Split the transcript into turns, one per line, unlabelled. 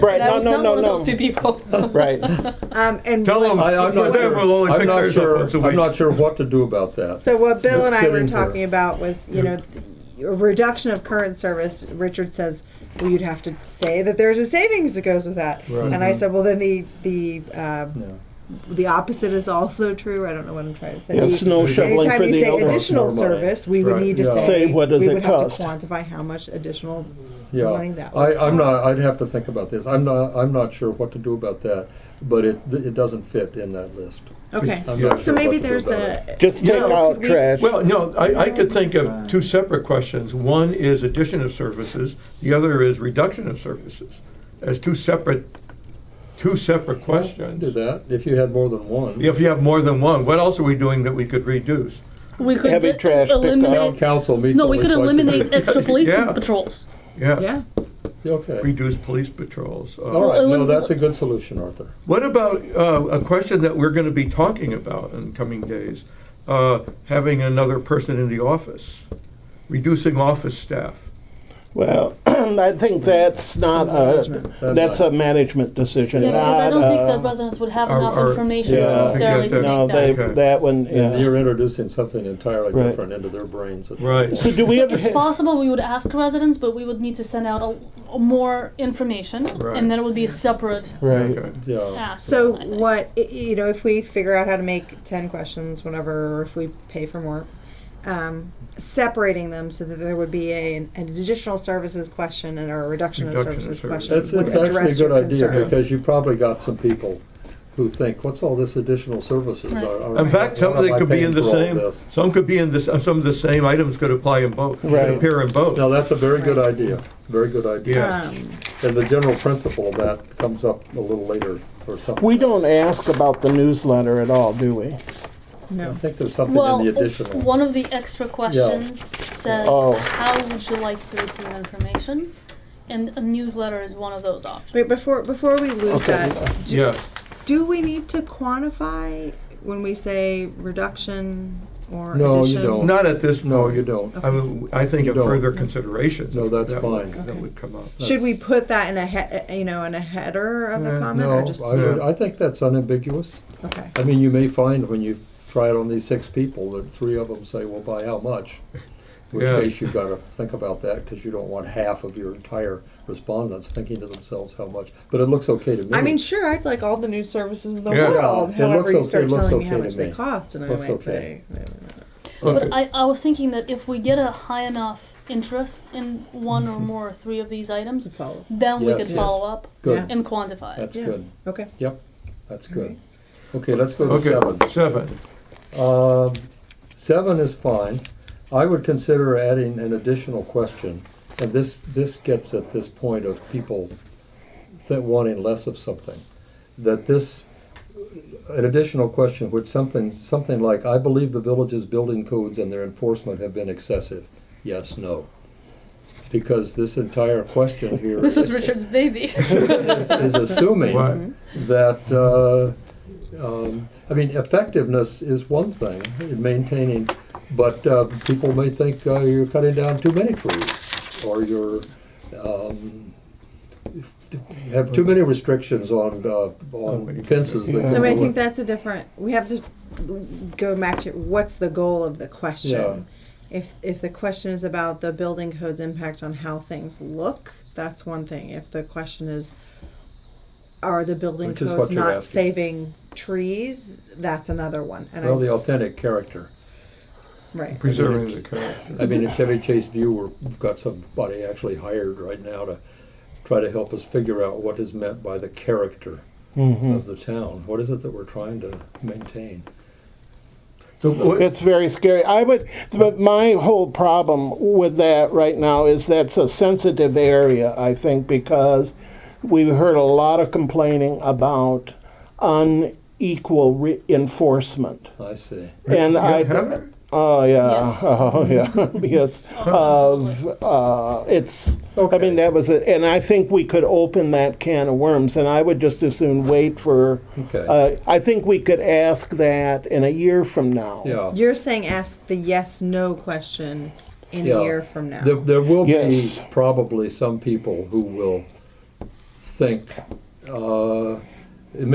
Right,
And I
no,
was
no,
not
no,
one of
no.
those two people.
Right.
Um, and
Tell
Bill-
them,
I, I'm not
They will
sure,
only
I'm
pick
not
theirs up once a
sure,
week.
I'm not sure what to do about that.
So what Bill and I were
Sitting there.
talking about was, you know, a reduction of current service. Richard says, well, you'd have to say that there's a savings that goes with that.
Right.
And I said, well, then the the
Yeah.
um, the opposite is also true. I don't know what I'm trying to say.
Yeah,
The-
snow shoveling
Anytime
for
you
the
say
elderly.
additional
more money.
service, we would
Right.
need to
Yeah.
say,
Say, what does
we
it
would
cost?
have to quantify how much additional money
Yeah,
that
I,
would
I'm not, I'd
cost.
have to think about this. I'm not, I'm not sure what to do about that, but it, it doesn't fit in that list.
Okay.
I'm not
So
sure what
maybe
to do
there's
about it.
a
Just take
No,
out
could we-
trash.
Well, no, I, I could think of two separate questions. One is addition of services, the other is reduction of services. As two separate, two separate questions.
Do that, if you had more than one.
If you have more than one, what else are we doing that we could reduce?
We could
Heavy
d-
trash picked up.
Town
eliminate.
council meets
No, we
only
could
twice a
eliminate
year.
extra police
Yeah.
patrols.
yeah.
Okay,
Reduce police patrols. Uh,
all right, no,
eliminate-
that's a good solution, Arthur.
What about uh, a question that we're going to be talking about in coming days? Uh, having another person in the office, reducing office staff.
Well, I think that's not a, that's a management decision,
Yeah, because
not
I don't think that
a.
residents would have
Our-
enough
our-
information
Yeah.
necessarily to
Uh, No,
make that.
they,
Okay.
that one, yeah.
You're introducing something entirely
Right.
different into their brains. at that
Right.
point.
So do we ever,
It's
ha-
possible we would ask residents, but we would need to send out a, a more information,
Right.
and then it would be a separate
right,
Okay.
Yeah,
ask.
So
I think.
what i- you know, if we figure out how to make ten questions, whenever, or if we pay for more, um, separating them so that there would be a, an additional services question and or a reduction,
Reduction
of
of
services
services.
question.
that's,
would
it's actually a
address
good
your
idea,
concerns.
because you probably got some people who think, what's all this additional services?
Right.
Are- are-
In fact, some
what
of
am
them
I
could be
paying
in the
for all
same,
this?
some could be in the, s- some of the same items could apply in both, could
Right.
appear in both.
Now, that's a very good idea, very good idea.
Yeah.
Um,
And the general principle of that comes up a little later or something.
we don't ask about the newsletter at all, do we?
I
no.
think there's something
well,
in the additional.
one of the extra questions says,
Oh.
"How would you like to receive information?" And a newsletter is one of those options.
Wait before before we lose
Okay.
that,
Yeah,
do we need to quantify when we say reduction or
No, you
addition?
don't.
not at this.
No, you
point.
don't.
I mean, I think
You
of
don't.
further considerations.
No,
if
that's
that would-
fine.
That
Okay.
would come up.
Should we put that in a he- you know in a header of the
Uh,
comment
Eh, No,
or just
I, would- I think that's unambiguous.
okay?
I mean, you may find when you try it on these six people that three of them say, well, by how much? In which
Yeah.
case you've got to think about that because you don't want half of your entire respondents thinking to themselves how much. But it looks okay to me.
I mean, sure, I'd like all the new services in the
Yeah.
world.
It
However,
looks
you
okay-
start
it looks
telling me how
okay to
much they
me.
cost, and I
Looks
might
okay.
say,
Okay.
But I, I was thinking that if we get a high enough interest in one or more or three of these items,
to follow.
then we
Mm-hmm. Yes.
could
Yes.
follow up
Good.
and quantify. it.
That's
Yeah.
good.
Okay.
Yep. That's good. Okay, let's go to seven.
Okay, seven.
Um, Seven is fine. I would consider adding an additional question, and this, this gets at this point of people that wanting less of something. That this, an additional question, which something, something like, I believe the village's building codes and their enforcement have been excessive. Yes, no. Because this entire question here
This is Richard's baby.
is, is assuming
Right.
that, uh, um, I mean, effectiveness is one thing, in maintaining, but uh, people may think uh, you're cutting down too many trees, or you're, um, have too many restrictions on, uh, on fences. that
So
go
I
with-
think that's a different. We have to go back to what's the goal of the question. If if the question is about the building code's impact on how things look, that's one thing. If the question is, are the building
Which is
codes
what you're
not
asking.
saving trees? That's another one. And
Well,
I-
the authentic character.
right?
Preserving the character.
I mean, at Chevy Chase View, we've got somebody actually hired right now to try to help us figure out what is meant by the character of the town. What is it that we're trying to maintain?
The- what-
It's very scary. I would, but my whole problem with that right now is that's a sensitive area, I think, because we've heard a lot of complaining about unequal re- enforcement.
I see.
And I,
Heather?
oh yeah,
Yes.
oh yeah, because of uh, it's. I
Okay.
mean, that was, a, and I think we could open that can of worms, and I would just as soon wait for.
Okay.
Uh, I think we could ask that in a year from now.
yeah.
You're saying ask the yes no question in
Yeah.
a year from now.
There, there will
Yes.
be probably some people who will think, uh,